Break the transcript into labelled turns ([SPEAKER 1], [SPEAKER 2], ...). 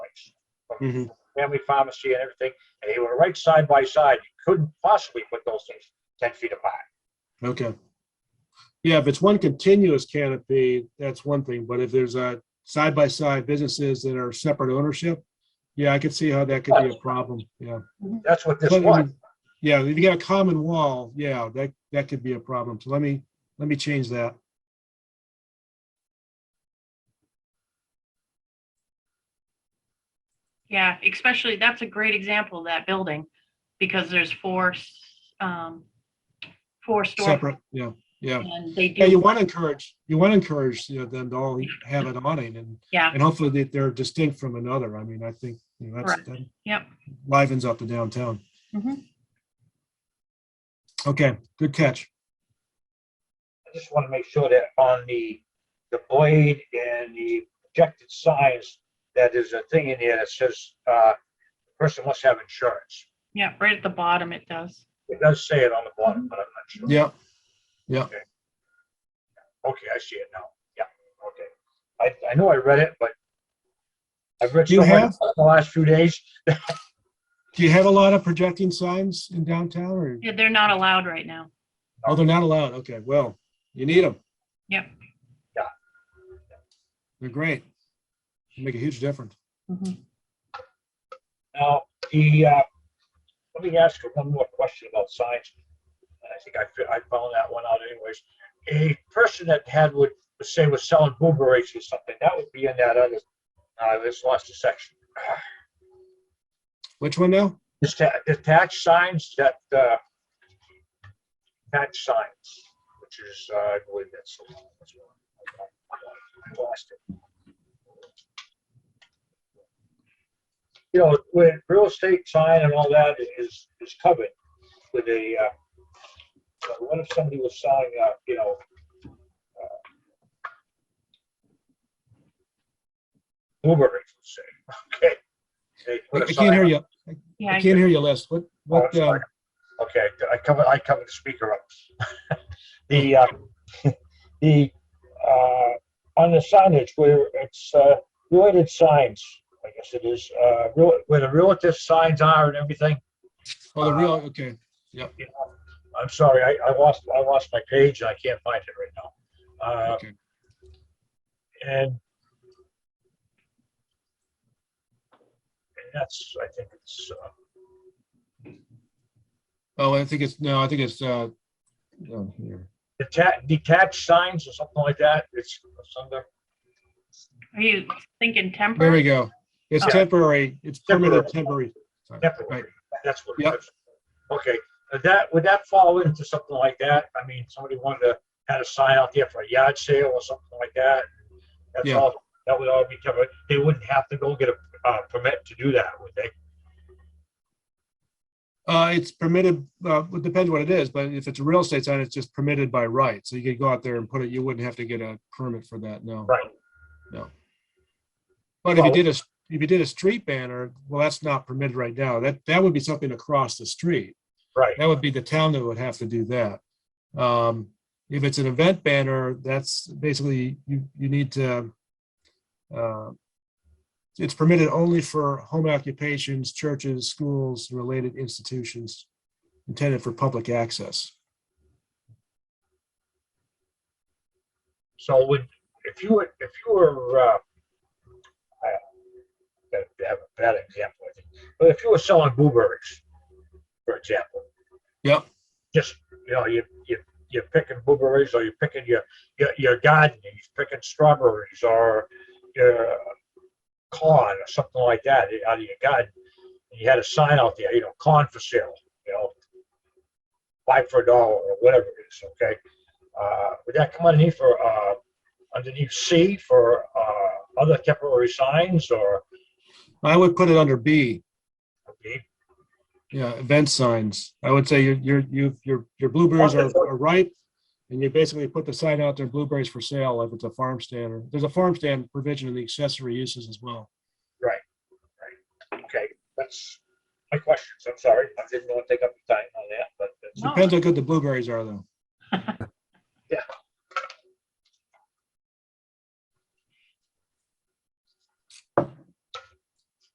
[SPEAKER 1] Mhm.
[SPEAKER 2] family pharmacy and everything, and they were right side by side. You couldn't possibly put those things ten feet apart.
[SPEAKER 1] Okay. Yeah, if it's one continuous canopy, that's one thing, but if there's a side-by-side businesses that are separate ownership, yeah, I could see how that could be a problem, yeah.
[SPEAKER 2] That's what this
[SPEAKER 1] But,
[SPEAKER 2] was.
[SPEAKER 1] Yeah, if you got a common wall, yeah, that, that could be a problem, so let me, let me change that.
[SPEAKER 3] Yeah, especially, that's a great example of that building, because there's four, s- um, four
[SPEAKER 1] Separate,
[SPEAKER 3] storefronts.
[SPEAKER 1] yeah, yeah.
[SPEAKER 3] And they do.
[SPEAKER 1] Yeah, you want to encourage, you want to encourage, you know, them to all have an awning and,
[SPEAKER 3] Yeah,
[SPEAKER 1] and hopefully that they're distinct from another, I mean, I think, you know, that's, that
[SPEAKER 3] yep.
[SPEAKER 1] livens up the downtown.
[SPEAKER 3] Mhm.
[SPEAKER 1] Okay, good catch.
[SPEAKER 2] I just want to make sure that on the, the blade and the projected signs, that there's a thing in there that says, uh, the person must have insurance.
[SPEAKER 3] Yeah, right at the bottom it does.
[SPEAKER 2] It does say it on the bottom, but I'm not sure.
[SPEAKER 1] Yeah, Mm-hmm.
[SPEAKER 2] Okay, I see it now. Yeah, okay. I, I know I read it, but I've read
[SPEAKER 1] Do
[SPEAKER 2] so much
[SPEAKER 1] you have-
[SPEAKER 2] in the last few days.
[SPEAKER 1] do you have a lot of projecting signs in downtown or,
[SPEAKER 3] Yeah, They're not allowed right now.
[SPEAKER 1] oh, they're not allowed, okay, well, you need them.
[SPEAKER 3] Yep.
[SPEAKER 2] Yeah.
[SPEAKER 1] They're great. Make a huge difference. Mm-hmm.
[SPEAKER 3] Mhm.
[SPEAKER 2] Now, the, uh, let me ask you one more question about signs. And I think I, fi- I found that one out anyways. A person that had would, say was selling blueberries or something, that would be in that other, I just lost the section.
[SPEAKER 1] Which one now?
[SPEAKER 2] Deta- Detached signs that, uh, detached signs, which is, uh, I believe that's. the one as well. I Lost it. You know, with real estate sign and all that is, is covered with a, uh, but what if somebody was selling, uh, you know, uh, blueberries, let's say, okay? They
[SPEAKER 1] I
[SPEAKER 2] put a
[SPEAKER 1] I
[SPEAKER 2] sign
[SPEAKER 1] can't hear
[SPEAKER 2] up.
[SPEAKER 1] you.
[SPEAKER 3] Yeah,
[SPEAKER 1] I
[SPEAKER 3] I-
[SPEAKER 1] can't hear you, Les. What, what,
[SPEAKER 2] Oh,
[SPEAKER 1] uh,
[SPEAKER 2] sorry. Okay, I covered, I covered the speaker up. The, uh, the, uh, on the signage where it's, uh, related signs, I guess it is, uh, real- where the relative signs are and everything.
[SPEAKER 1] oh, the real, okay.
[SPEAKER 2] I'm sorry, I, I lost, I lost my page and I can't find it right now. Uh,
[SPEAKER 1] Okay.
[SPEAKER 2] and and that's, I think it's, uh,
[SPEAKER 1] Oh, I think it's, no, I think it's, uh, down here.
[SPEAKER 2] detached, detached signs or something like that. It's under
[SPEAKER 3] Are you thinking
[SPEAKER 1] There we
[SPEAKER 3] temporary?
[SPEAKER 1] go. It's
[SPEAKER 2] Yeah.
[SPEAKER 1] temporary, it's permanent temporary.
[SPEAKER 2] Temporary.
[SPEAKER 1] Sorry. Right.
[SPEAKER 2] temporary. That's what
[SPEAKER 1] Yep.
[SPEAKER 2] it is. Okay, Would that, would that fall into something like that? I mean, somebody wanted to, had a sign out there for a yard sale or something like that. That's
[SPEAKER 1] Yeah.
[SPEAKER 2] all, that would all be covered. They wouldn't have to go get a, uh, permit to do that, would they?
[SPEAKER 1] Uh, it's permitted, uh, it depends what it is, but if it's a real estate sign, it's just permitted by right. So you could go out there and put it, you wouldn't have to get a permit for that, no.
[SPEAKER 2] Right.
[SPEAKER 1] But if you
[SPEAKER 2] Well-
[SPEAKER 1] did a, if you did a street banner, well, that's not permitted right now. That, that would be something across the street.
[SPEAKER 2] Right,
[SPEAKER 1] That would be the town that would have to do that. Um, if it's an event banner, that's basically, you, you need to, uh, it's permitted only for home occupations, churches, schools, related institutions intended for public access.
[SPEAKER 2] so would, if you were, if you were, uh, I gotta have a bad example, I think, but if you were selling blueberries, for example,
[SPEAKER 1] Yep,
[SPEAKER 2] just, you know, you, you, you're picking blueberries or you're picking your, your, your garden, and you're picking strawberries or your corn or something like that out of your garden. And You had a sign out there, you know, corn for sale, you know, buy for a dollar or whatever it is, okay? Uh, would that come underneath for, uh, underneath C for, uh, other temporary signs or,
[SPEAKER 1] I would put it under B,
[SPEAKER 2] okay,
[SPEAKER 1] yeah, event signs. I would say your, your, you- your, your blueberries are are ripe. And you basically put the sign out there, blueberries for sale, if it's a farm stand, or, there's a farm stand provision in the accessory uses as well.
[SPEAKER 2] okay, that's my questions, I'm sorry, I didn't want to take up the time on that, but that's.
[SPEAKER 3] No.
[SPEAKER 1] Depends how good the blueberries are though.